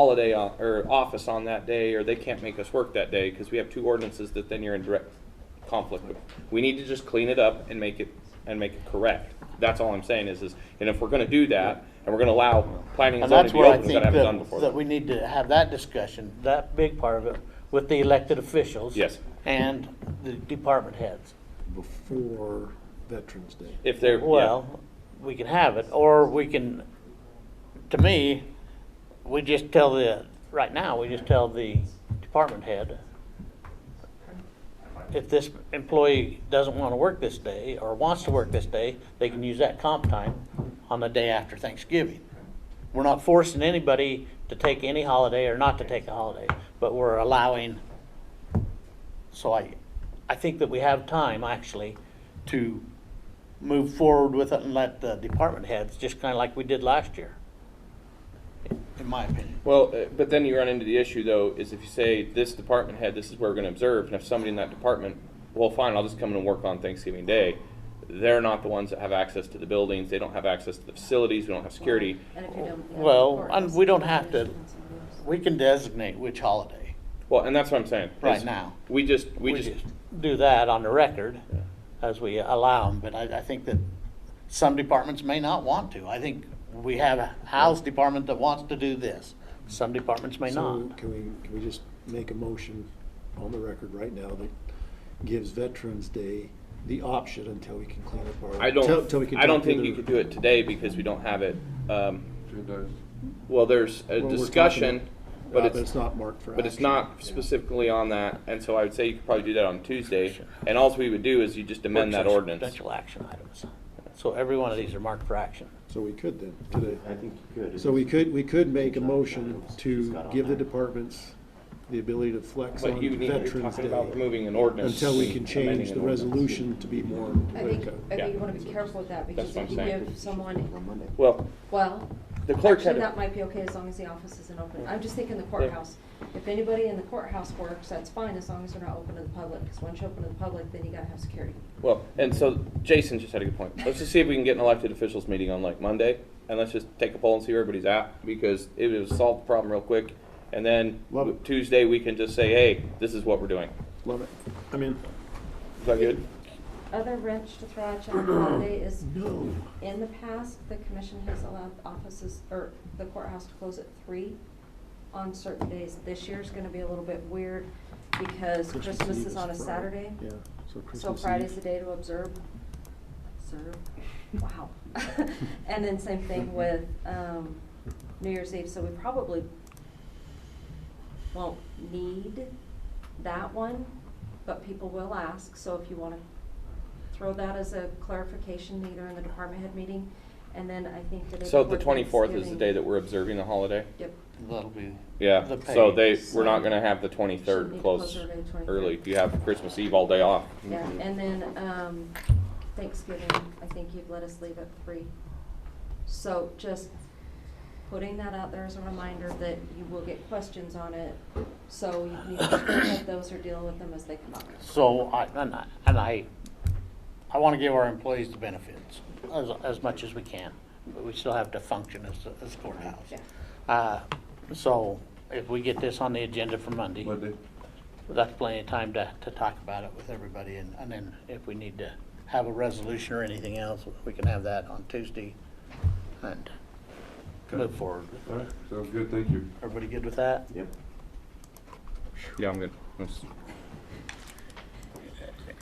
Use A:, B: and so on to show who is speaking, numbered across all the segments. A: holiday on, or office on that day, or they can't make us work that day, because we have two ordinances that then you're in direct conflict with. We need to just clean it up and make it, and make it correct. That's all I'm saying is, is, and if we're gonna do that, and we're gonna allow planning and
B: And
A: zoning to
B: that's
A: be
B: where I
A: open, we
B: think
A: gotta have it done
B: that,
A: before.
B: that
A: then.
B: we need to have that discussion,
C: that big part of it, with the elected officials.
A: Yes,
C: And the department heads.
D: before Veterans Day.
A: if they're, yeah,
C: Well, we can have it, or we can, to me, we just tell the, right now, we just tell the department head, if this employee doesn't want to work this day, or wants to work this day, they can use that comp time on the day after Thanksgiving. We're not forcing anybody to take any holiday or not to take a holiday, but we're allowing, so I, I think that we have time, actually, to move forward with it and let the department heads, just kind of like we did last year, in my opinion.
A: well, uh, but then you run into the issue though, is if you say, this department head, this is where we're gonna observe, and if somebody in that department, well, fine, I'll just come in and work on Thanksgiving Day. They're not the ones that have access to the buildings, they don't have access to the facilities, we don't have security.
E: And if you don't have
B: Well,
E: court,
B: and
E: it's
B: we don't
E: still
B: have to-
E: conditions and rules.
B: we can designate which holiday.
A: Well, and that's what I'm saying.
B: Right
A: is
B: now.
A: We just, we just,
C: Do that on the record as we allow them,
B: But I, I think that some departments may not want to. I think we have a house department that wants to do this.
C: some departments may
D: So
C: not.
D: Can we, can we just make a motion on the record right now that gives Veterans Day the option until we can clean up our.
A: I
D: till- till
A: don't,
D: we can
A: I don't
D: talk to
A: think
D: the-
A: you could do it today because we don't have it. um, Well, there's a
D: when we're talking
A: discussion,
D: about-
A: but
D: uh,
A: it's,
D: not marked for
A: but it's
D: action.
A: not specifically on that. And so I would say you could probably do that on Tuesday. And alls we would do is you just amend that
C: Work session,
A: ordinance.
C: Potential action items. So every one of these are marked for action.
D: So we could then, today.
F: I think you could.
D: So we could, we could make a
F: She's not-
D: motion
F: she's
D: to
F: got on
D: give the
F: there.
D: departments the ability to flex
A: But
D: on
A: you need, you're
D: Veterans
A: talking about
D: Day
A: moving an ordinance.
D: until we can
A: amending
D: change
A: an
D: the
A: ordinance.
D: resolution to be more.
E: I think, I
A: Yeah.
E: think you wanna be careful with that, because
A: what
E: if
A: I'm
E: you
A: saying.
E: give someone,
A: Well,
E: well,
A: the clerk had,
E: actually, that
A: a-
E: might be okay as long as the office isn't open. I'm just thinking the courthouse. If anybody in the courthouse works, that's fine, as long as they're not open to the public, because once you open to the public, then you gotta have security.
A: well, and so Jason just had a good point. Let's just see if we can get an elected officials meeting on like Monday. And let's just take a poll and see where everybody's at because it will solve the problem real quick. And then
D: Love it.
A: Tuesday, we can just say, hey, this is what we're doing.
D: Love it. I mean,
A: Is that good?
E: Other wrench to throw at you on the holiday is,
D: no.
E: in the past, the commission has allowed offices, or the courthouse to close at three on certain days. This year's gonna be a little bit weird, because Christmas
D: Eve
E: is on a
D: Friday.
E: Saturday.
D: Yeah, so
E: So
D: Christmas Eve.
E: Friday's the day to observe, serve, wow. And then same thing with um, New Year's Eve, so we probably won't need that one, but people will ask, so if you want to throw that as a clarification, either in the department head meeting, and then I think the day
A: So the
E: before
A: twenty-fourth is the
E: Thanksgiving-
A: day that we're observing the holiday?
E: Yep.
B: That'll be.
A: Yeah,
B: The
A: so
B: pay.
A: they, we're not gonna have the
E: Should
A: twenty-third
E: be
A: close
E: closer to 23rd.
A: early. You have Christmas Eve all day off.
E: Yeah, and then, um, Thanksgiving, I think you've let us leave at three. So just putting that out there as a reminder that you will get questions on it, so you need to prepare those or deal with them as they come up.
B: So I, and I, and I, I want to give our employees the benefits as, as much as we can, but we still have to function as, as courthouse.
E: Yeah.
B: Uh, so if we get this on the agenda for Monday. That's plenty of time to, to talk about it with everybody and, and then if we need to have a resolution or anything else, we can have that on Tuesday and move forward.
G: All right, sounds good, thank you.
B: Everybody good with that?
F: Yep.
A: Yeah, I'm good. That's-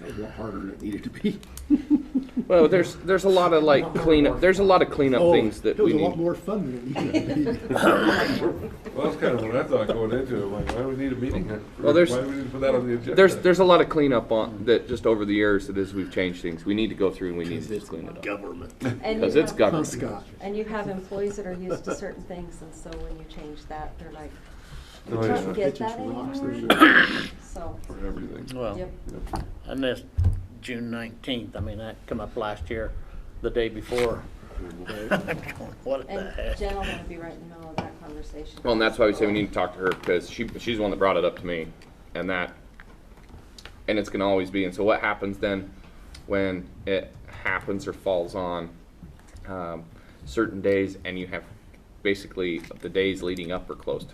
D: A lot harder than it needed to be.
A: Well, there's, there's a lot of like cleanup, there's a lot of cleanup
D: Oh,
A: things that
D: It
A: we
D: was a lot
A: need.
D: more fun than it needed to be.
G: Well, that's kind of what I thought going into it, like, why do we need a meeting here?
A: Well, there's-
G: Why do we need to put that on the agenda?
A: There's, there's a lot of cleanup on, that just over the years, that as we've changed things, we need to go through and we need to just clean it up.
D: Government.
E: And
A: Cause
E: you
A: it's
E: have-
D: Huh,
A: government.
D: Scott?
E: And you have employees that are used to certain things, and so when you change that, they're like, we
G: Oh, yeah.
E: don't get
D: Kitchen's
E: that
D: rocks, there's
E: anymore. So,
G: For everything.
B: Well.
E: yep.
B: And this June nineteenth, I mean, that come up last year, the day before. I'm going, What the
E: And
B: heck?
E: Jen will want to be right in the middle of that conversation.
A: Well, and that's why we say we need to talk to her, because she, she's the one that brought it up to me, and that, and it's gonna always be, and so what happens then when it happens or falls on, um, certain days, and you have, basically, the days leading up are closed?